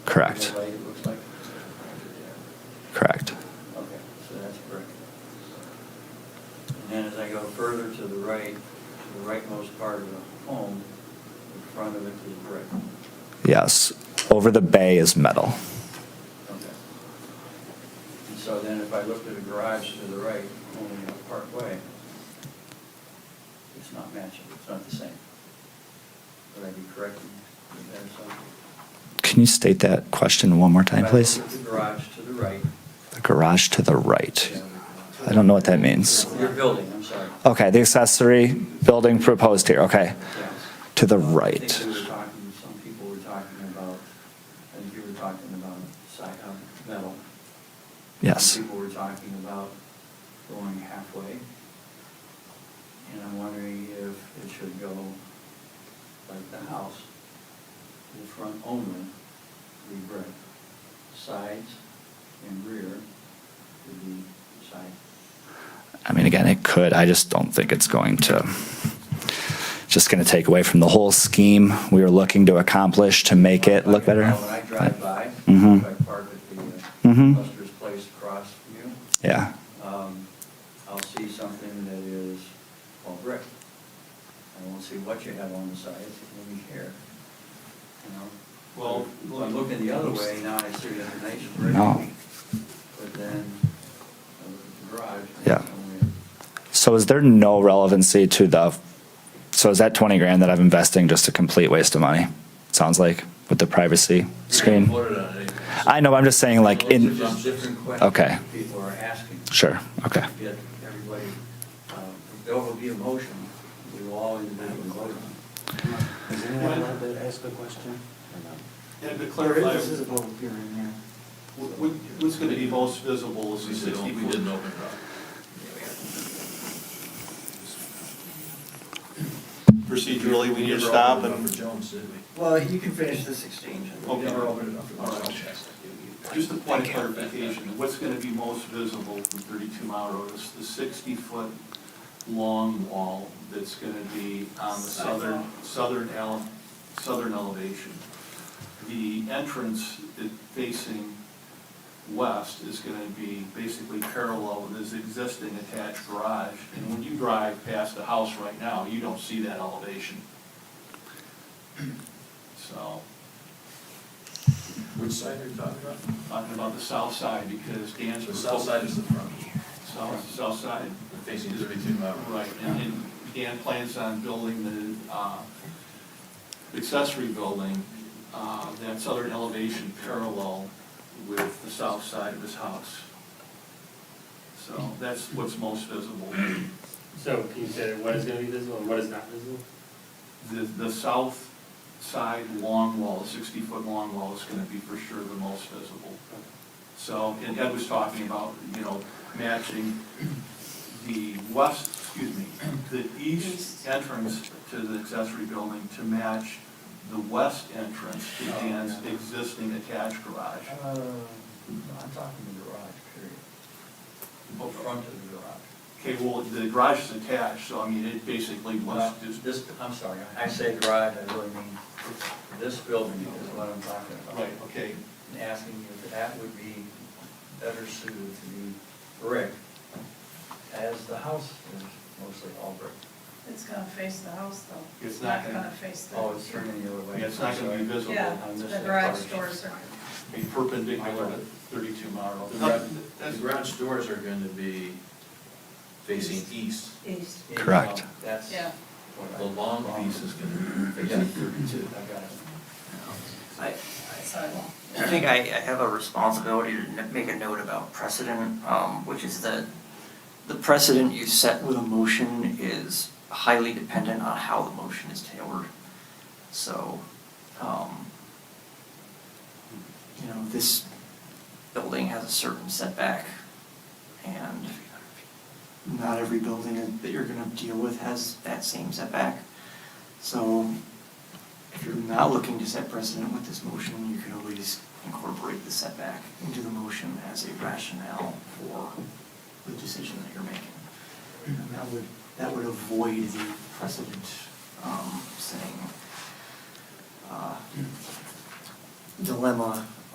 Correct. Right, it looks like? Correct. Okay, so that's brick. And then as I go further to the right, to the rightmost part of the home, in front of it is brick. Yes. Over the bay is metal. Okay. And so then if I looked at a garage to the right, only a part way, it's not matching, it's not the same. Would I be correct in that assumption? Can you state that question one more time, If I please? look at The garage to the right. The garage to the right. yeah. I don't know what that means. Oh, Your building, I'm sorry. Okay, the accessory building proposed here, okay. Yes. To the I think right. we were talking, some people were talking about, I think you were talking about si- um, metal. Yes. Some people were talking about going halfway. And I'm wondering if it should go like the house, the front only, be brick. Sides and rear would be side. I mean, again, it could, I just don't think it's going to, just going to take away from the whole scheme we were looking to accomplish to make it look better. When I drive by, Mhm. if I park at the uh, Mhm. Buster's Place across from you, Yeah, um, I'll see something that is all brick. I won't see what you have on the sides, it will be here, you know? Well, If I'm looking the other way, now I see the nice brick. No. But then, I look at the garage. and Yeah. it's only- so is there no relevancy to the, so is that 20 grand that I'm investing just a complete waste of money? Sounds like, with the privacy Screen. screen? I know, I'm just saying like, Those are in, just different questions Okay. people are asking. sure, okay. Yet everybody, uh, there will be a motion, we will all individually vote on it. Is anyone allowed to ask a question? And to Or clarify, not? This is a public hearing, yeah. wh- wh- what's going to be most visible is the 60 We didn't foot. open it up. Procedurally, we need never to stop opened it up and, For Jones, did we? Well, you can finish this exchange. Okay. Never opened it up for All right. Jones. just a point of clarification, what's going to be most visible from 32 Mile Road is the 60 foot long wall that's going to be on the southern, southern ele, southern elevation. The entrance that facing west is going to be basically parallel with this existing attached garage. And when you drive past the house right now, you don't see that elevation. So, Which side are you talking about? talking about the south side, because Dan's. The south side is the front, South, south side, facing thirty-two mile. right, and and Dan plans on building the uh, accessory building, uh, that southern elevation parallel with the south side of his house. So that's what's most visible, So can you say what is gonna be visible and what is not visible? the, the south side long wall, sixty-foot long wall is gonna be for sure the most visible. So, and Ed was talking about, you know, matching the west, excuse me, the east entrance to the accessory building to match the west entrance to Dan's existing attached garage. Uh, I'm talking the garage, period. Up front of the garage. Okay, well, the garage is attached, so I mean, it basically was just, This, this- I'm sorry, I say garage, I really mean this building is what I'm talking about. right, okay, And Asking if that would be better suited to be brick, as the house is mostly all brick. It's gonna face the house though. It's not gonna- face the. Oh, it's turning the other way. Yeah, it's not gonna be visible. Yeah, I missed the that garage part. doors are, be perpendicular to thirty-two mile. The gra- The garage doors are going to be facing east, east, Yeah, Correct. That's. yeah. what I- the long piece is going to be facing thirty-two. I got it. I, I think I, I have a responsibility to n- make a note about precedent, um, which is that the precedent you set with a motion is highly dependent on how the motion is tailored. So, um, you know, this building has a certain setback and not every building that you're gonna deal with has that same setback. So if you're not looking to set precedent with this motion, you could always incorporate the setback into the motion as a rationale for the decision that you're making. And that would, that would avoid the precedent, um, saying, uh, dilemma